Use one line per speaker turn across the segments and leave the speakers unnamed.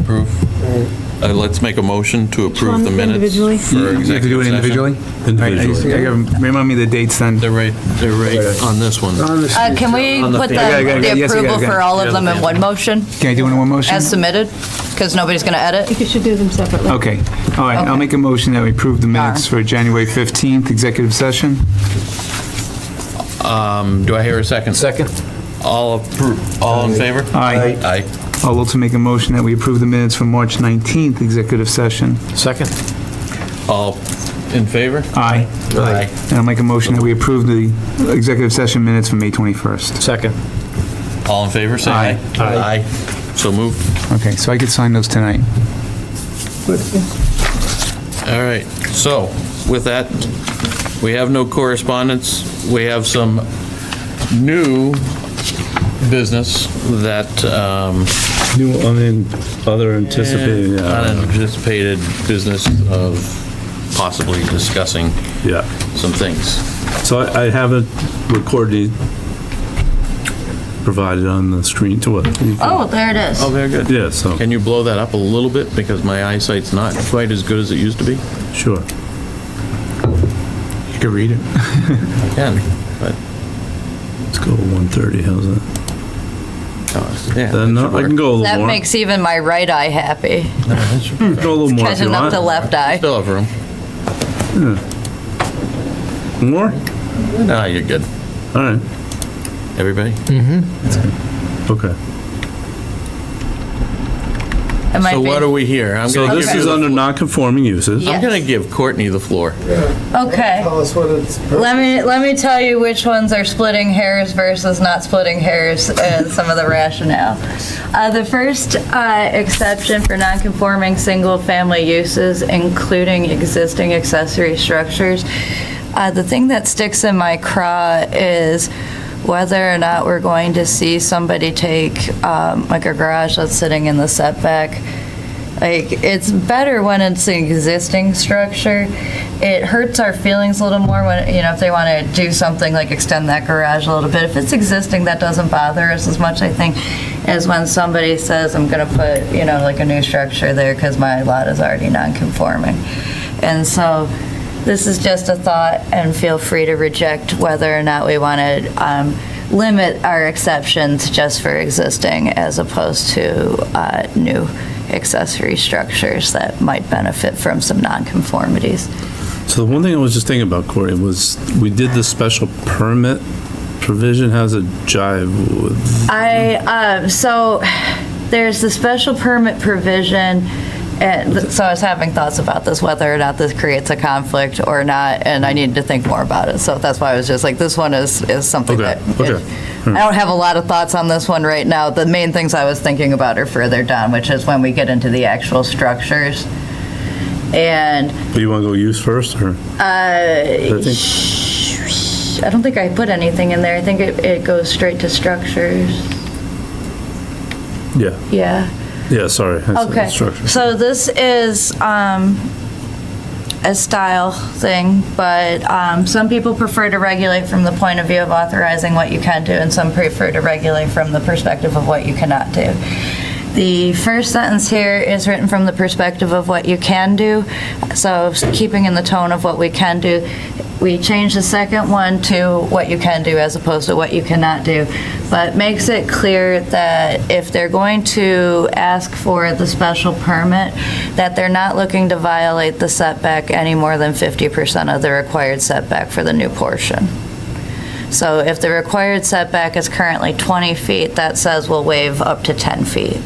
approve? Uh, Let's make a motion to approve
one
the minutes.
individually?
for
You you have to do
executive
it
session.
individually? Alright, I just- I gotta- Remind me the dates then.
They're right, they're right on this one.
Uh, Can we
On the
put the
fan. Yeah, yeah, yeah,
the
yes, yeah,
approval
yeah.
for all
Yeah,
of them in one motion
Can I do it in one motion?
as submitted? Because nobody's going to edit?
think you should do them separately.
Okay, all right, I'll
Okay.
make a motion that we approve the minutes
Sure.
for January 15th, executive session.
Um, Do I hear a second? Second. All appro, all in favor?
Aye.
Aye.
I'll also make a motion that we approve the minutes for March 19th, executive session.
Second. All in favor?
Aye.
Aye.
And I'll make a motion that we approve the executive session minutes from May 21st.
Second.
All in favor, say aye.
Aye.
Aye. So moved.
Okay, so I could sign those tonight.
All right, so with that, we have no correspondence. We have some new business that um,
New unin- other anticipated, uh,
unanticipated business of possibly discussing
yeah.
some things.
So I I haven't recorded, provided on the screen to what?
Oh, there it is.
very good.
Yeah, so,
Can you blow that up a little bit because my eyesight's not quite as good as it used to be?
sure.
You could read it.
I can, but,
Let's go 130, how's that?
uh, yeah. that
Then no,
should
I
work.
can go a little
That
more.
makes even my right eye happy,
Go a little more if you
catching up
want.
the left eye.
Still have room.
More?
No, you're good.
All right,
Everybody?
okay.
It might
So
be-
what are we here? I'm
So
gonna
this
give you
is
the
under
floor.
non-conforming uses.
Yeah.
I'm going to give Courtney the floor.
Okay.
Tell us what it's.
Let me, let me tell you which ones are splitting hairs versus not splitting hairs and some of the rationale. Uh, The first uh, exception for non-conforming single-family uses, including existing accessory structures, uh, the thing that sticks in my craw is whether or not we're going to see somebody take, um, like a garage that's sitting in the setback, like, it's better when it's an existing structure. It hurts our feelings a little more when, you know, if they want to do something like extend that garage a little bit. If it's existing, that doesn't bother us as much, I think, as when somebody says, I'm going to put, you know, like a new structure there because my lot is already non-conforming. And so this is just a thought, and feel free to reject whether or not we want to limit our exceptions just for existing as opposed to uh, new accessory structures that might benefit from some nonconformities.
So the one thing I was just thinking about, Corey, was we did the special permit provision, how's it jive with?
I, uh, so there's the special permit provision, and so I was having thoughts about this, whether or not this creates a conflict or not, and I needed to think more about it. So that's why I was just like, this one is, is something
Okay,
that,
okay.
I don't have a lot of thoughts on this one right now. The main things I was thinking about are further down, which is when we get into the actual structures. And
Do you want to go use first, or? I think-
I don't think I put anything in there. I think it, it goes straight to structures.
Yeah,
Yeah.
yeah, sorry. I said
Okay,
Structure.
so this is um, a style thing, but um, some people prefer to regulate from the point of view of authorizing what you can do, and some prefer to regulate from the perspective of what you cannot do. The first sentence here is written from the perspective of what you can do, so keeping in the tone of what we can do. We change the second one to what you can do as opposed to what you cannot do, but makes it clear that if they're going to ask for the special permit, that they're not looking to violate the setback any more than 50% of the required setback for the new portion. So if the required setback is currently 20 feet, that says we'll waive up to 10 feet.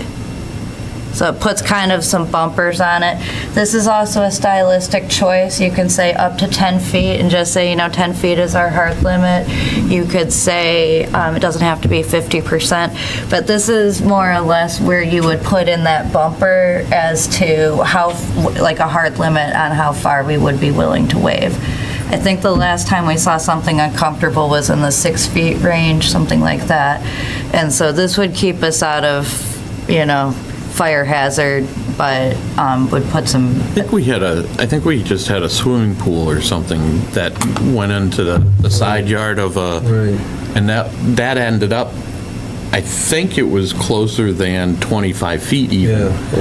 So it puts kind of some bumpers on it. This is also a stylistic choice. You can say up to 10 feet and just say, you know, 10 feet is our hard limit. You could say, um, it doesn't have to be 50%, but this is more or less where you would put in that bumper as to how, like a hard limit on how far we would be willing to waive. I think the last time we saw something uncomfortable was in the six feet range, something like that. And so this would keep us out of, you know, fire hazard, but um, would put some,
I think we had a, I think we just had a swimming pool or something that went into the, the side yard of a, and that, that ended up, I think it was closer than 25 feet even.